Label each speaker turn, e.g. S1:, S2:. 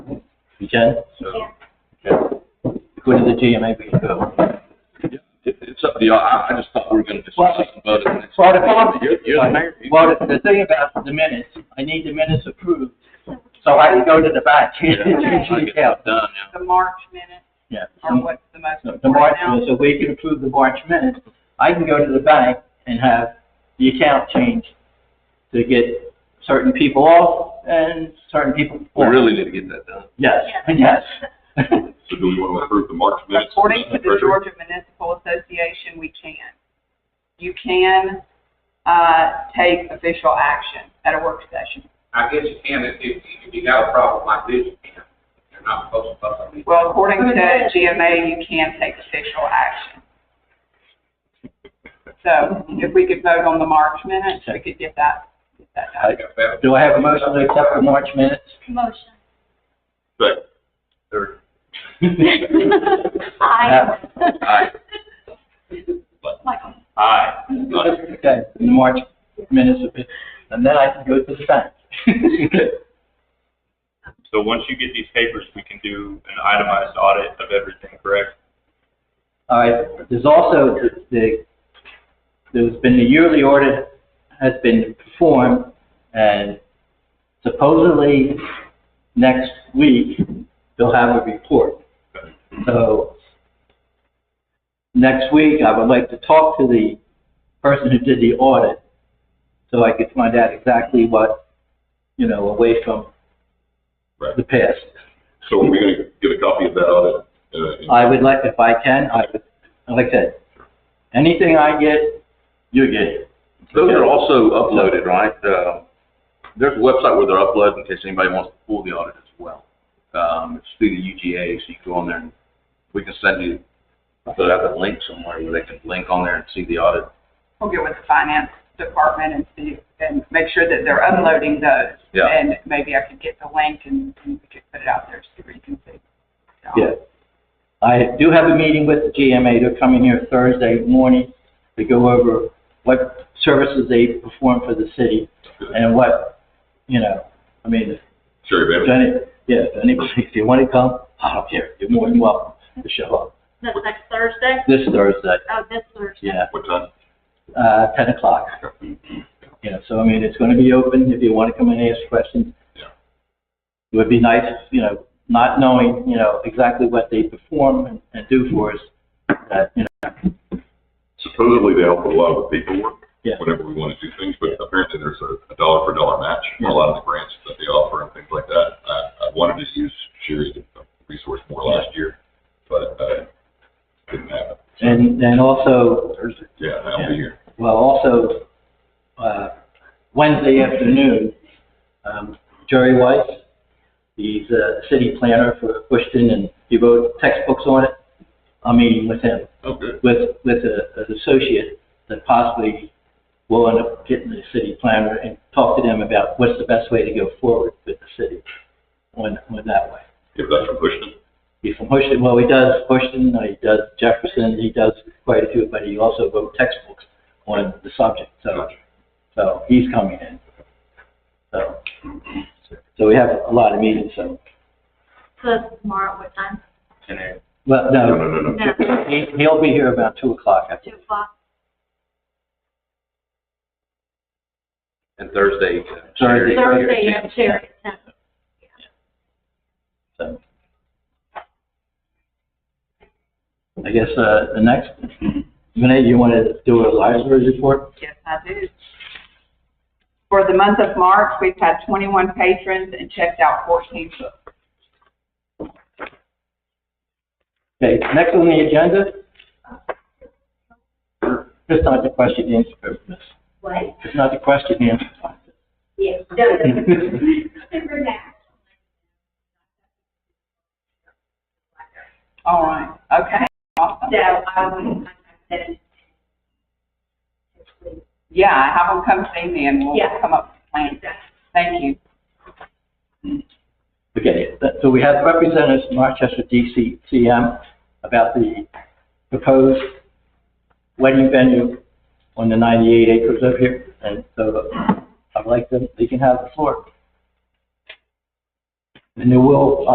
S1: You can? Okay. Go to the GMA, we can go.
S2: It, it's up to y'all. I, I just thought we were gonna discuss this and vote on it.
S1: Well, the-
S2: You're, you're the mayor. You-
S1: Well, the- the thing about the minutes, I need the minutes approved, so I can go to the back and
S2: Yeah, I
S1: change
S2: get
S1: it out.
S2: that done now.
S3: The March minutes
S1: Yeah.
S3: are what's the most
S1: So The March,
S3: important now.
S1: so we can approve the March minutes, I can go to the bank and have the account changed to get certain people off and certain people.
S2: We
S1: on.
S2: Oh, really need to get that done.
S1: Yes, yes.
S4: So do we want to approve the March minutes?
S3: According to
S4: Mr.
S3: the
S4: Treasurer?
S3: Georgia Municipal Association, we can. You can, uh, take official action at a work session.
S5: I guess you can, if, if if you got a problem like this, you can. You're not supposed to fuss on me.
S3: Well, according to GMA, you can take official action. So if we could vote on the March minutes, we could get that, get that done.
S1: Do I have a motion to accept the March minutes?
S6: Motion.
S4: Second.
S6: Aye.
S2: Aye.
S6: Michael.
S4: Aye.
S1: Okay, the March minutes, of it, and then I can go to the bank.
S7: So once you get these papers, we can do an itemized audit of everything, correct?
S1: All right, there's also the- the, there's been a yearly audit has been performed, and supposedly next week, they'll have a report. So, next week, I would like to talk to the person who did the audit, so I could find out exactly what, you know, away from
S4: Right.
S1: the past.
S4: So are we going to get a copy of that audit? uh, and-
S1: I would like, if I can, I would, like I said, anything I get, you get it.
S2: Those are also uploaded, right? Uh, there's a website where they're uploaded in case anybody wants to pull the audit as well. Um, it's through the UGA, so you go on there and we can send you, I'll put out the link somewhere where they can link on there and see the audit.
S3: We'll get with the finance department and see, and make sure that they're unloading those.
S2: Yeah.
S3: And maybe I could get the link and and we could put it out there so you can see. So,
S1: Yeah. I do have a meeting with the GMA. They're coming here Thursday morning to go over what services they perform for the city and what, you know, I mean,
S4: Sherry
S1: if
S4: Bennett?
S1: any, yeah, if anybody, if you want to come, I don't care. You're more than welcome to show up
S6: That's next Thursday?
S1: this Thursday,
S6: Oh, this Thursday.
S1: yeah,
S4: What time?
S1: uh, ten o'clock. Yeah, so I mean, it's going to be open if you want to come and ask questions.
S4: Yeah.
S1: It would be nice, you know, not knowing, you know, exactly what they perform and- and do for us, that, you know,
S4: Supposedly they help with a lot of the paperwork.
S1: Yeah.
S4: Whenever we want to do things, but apparently there's a, a dollar for dollar match, for a lot of the grants that they offer and things like that. I, I wanted to use Sherry's resource more last year, but, uh, didn't happen.
S1: And, and also,
S4: Thursday. Yeah, I'll be here.
S1: well, also, uh, Wednesday afternoon, um, Jerry Weiss, he's a city planner for Bushton and he wrote textbooks on it. I'm meeting with him,
S4: Oh, good.
S1: with, with a, an associate that possibly will end up getting the city planner and talk to them about what's the best way to go forward with the city on, on that way.
S4: If that's from Bushton.
S1: He's from Houston. Well, he does Houston, he does Jefferson, he does quite a few, but he also wrote textbooks on the subject, so,
S4: Gotcha.
S1: so he's coming in. So, so we have a lot of meetings, so,
S6: So that's tomorrow, what time?
S1: well,
S4: No,
S1: no,
S4: no, no, no.
S6: No,
S1: he, he'll be here about two o'clock, I
S6: two
S1: think.
S6: o'clock.
S2: And Thursday. uh,
S1: Thursday.
S6: Thursday, you have Sherry. No.
S1: so. I guess, uh, the next, Renee, you wanna do a library report?
S3: Yes, I do. For the month of March, we've had twenty-one patrons and checked out fourteen books.
S1: Okay, next on the agenda? It's not the question and answer, Miss.
S8: What?
S1: It's not the question and answer.
S8: Yeah, no, remember that.
S3: All right, okay, awesome.
S8: So, um, I said,
S3: Yeah, have them come see me and we'll
S8: Yeah.
S3: come up with plans. Thank you.
S1: Okay, that- so we have representatives from Rochester DCCM about the proposed wedding venue on the 98 acres over here, and so I'd like them, they can have the floor. And uh, they will,